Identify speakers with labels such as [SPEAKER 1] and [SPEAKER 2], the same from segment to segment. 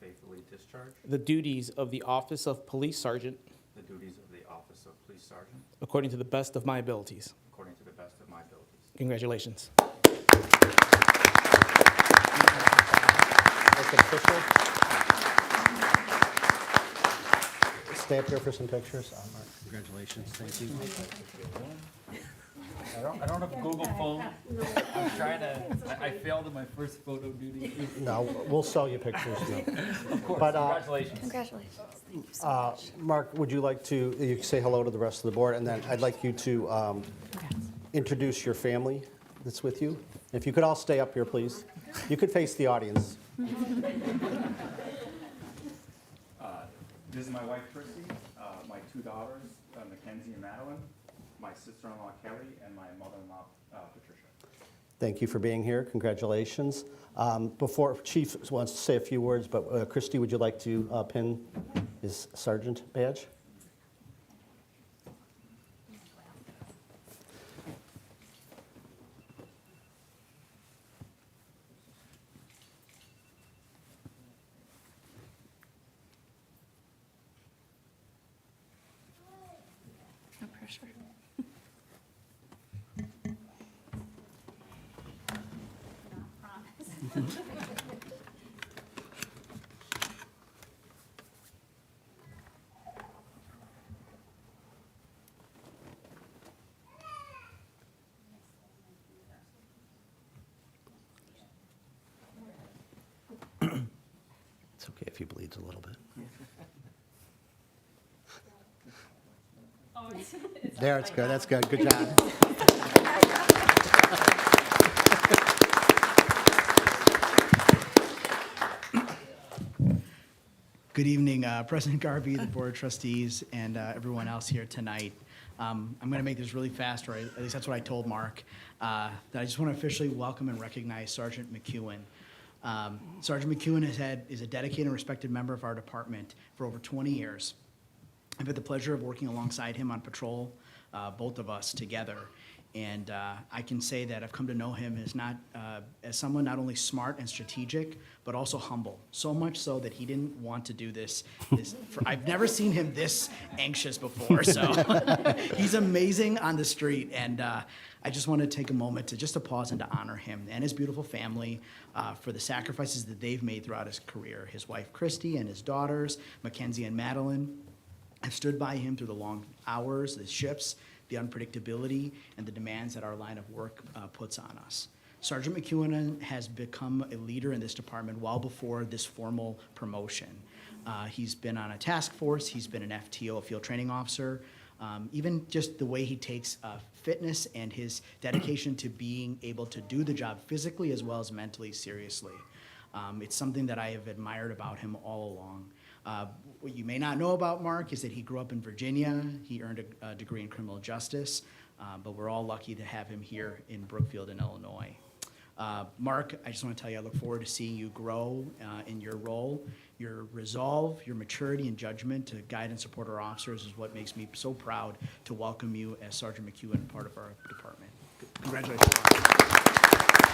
[SPEAKER 1] faithfully discharge
[SPEAKER 2] the duties of the office of police sergeant
[SPEAKER 1] the duties of the office of police sergeant
[SPEAKER 2] according to the best of my abilities.
[SPEAKER 1] according to the best of my abilities.
[SPEAKER 2] Congratulations.
[SPEAKER 3] Make it official. Stay up here for some pictures. Uh, Mark, Congratulations, thank you.
[SPEAKER 4] I don't, I don't have a Google phone. I'm trying to, I- I failed in my first photo duty.
[SPEAKER 3] No, we'll sell you pictures. no.
[SPEAKER 4] Of course,
[SPEAKER 3] But, uh,
[SPEAKER 4] congratulations.
[SPEAKER 5] Congratulations. Thank you so
[SPEAKER 3] Uh,
[SPEAKER 5] much.
[SPEAKER 3] Mark, would you like to, you can say hello to the rest of the board, and then I'd like you to um, introduce your family that's with you. If you could all stay up here, please. You could face the audience.
[SPEAKER 1] This is my wife Chrissy, uh, my two daughters, uh, Mackenzie and Madeline, my sister-in-law Kelly, and my mother-in-law uh, Patricia.
[SPEAKER 3] Thank you for being here. Congratulations. Um, Before Chief wants to say a few words, but uh, Christie, would you like to uh, pin his sergeant badge?
[SPEAKER 5] No pressure.
[SPEAKER 3] It's okay if he bleeds a little bit. There, it's good, that's good, good job.
[SPEAKER 6] Good evening, uh, President Garvey, the Board of Trustees, and uh, everyone else here tonight. Um, I'm going to make this really fast, or at least that's what I told Mark, uh, that I just want to officially welcome and recognize Sergeant McEwen. Um, Sergeant McEwen has had, is a dedicated and respected member of our department for over 20 years. I've had the pleasure of working alongside him on patrol, uh, both of us together. And uh, I can say that I've come to know him as not uh, as someone not only smart and strategic, but also humble. So much so that he didn't want to do this. this for, I've never seen him this anxious before. So he's amazing on the street, and uh, I just want to take a moment to just to pause and to honor him and his beautiful family uh, for the sacrifices that they've made throughout his career. His wife Christy and his daughters Mackenzie and Madeline. I've stood by him through the long hours, the shifts, the unpredictability, and the demands that our line of work uh, puts on us. Sergeant McEwen has become a leader in this department well before this formal promotion. Uh, he's been on a task force, he's been an FTO, a field training officer. Um, even just the way he takes uh, fitness and his dedication to being able to do the job physically as well as mentally seriously. Um, it's something that I have admired about him all along. Uh, what you may not know about Mark is that he grew up in Virginia. He earned a, a degree in criminal justice, uh, but we're all lucky to have him here in Brookfield in Illinois. Uh, Mark, I just want to tell you, I look forward to seeing you grow uh, in your role. Your resolve, your maturity, and judgment to guide and support our officers is what makes me so proud to welcome you as Sergeant McEwen, part of our department. Congratulations. Mark.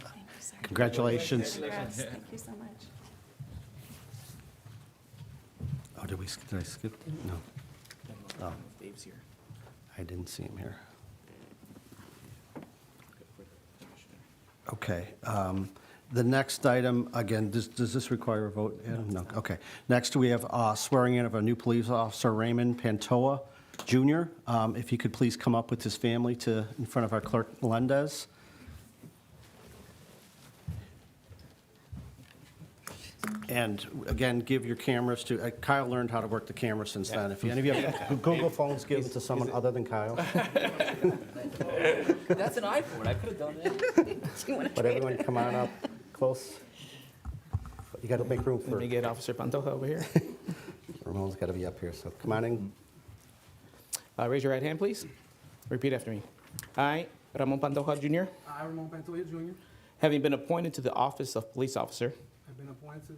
[SPEAKER 5] Thank you, sir.
[SPEAKER 3] Congratulations.
[SPEAKER 5] Congrats. Thank you so much.
[SPEAKER 3] Oh, did we, sk- did I skip? that? No, Oh.
[SPEAKER 2] Dave's here.
[SPEAKER 3] I didn't see him here. Okay. um, The next item, again, does does this require a vote, Adam? No, okay. Next, we have uh, swearing in of a new police officer, Raymond Pantoa Jr. Um, If he could please come up with his family to, in front of our clerk, Melendez. And again, give your cameras to, uh, Kyle learned how to work the camera since then. If any of you have Google phones, give them to someone other than Kyle.
[SPEAKER 4] That's an iPhone, I could have done it.
[SPEAKER 3] But everyone, come on up, close. You got to make room
[SPEAKER 2] Let
[SPEAKER 3] for,
[SPEAKER 2] me get Officer Pantoja over here.
[SPEAKER 3] Ramon's got to be up here, so come on in.
[SPEAKER 2] Uh, Raise your right hand, please. Repeat after me. I, Ramon Pantoja Jr.,
[SPEAKER 7] I, Ramon Pantoja Jr.,
[SPEAKER 2] having been appointed to the office of police officer
[SPEAKER 7] have been appointed to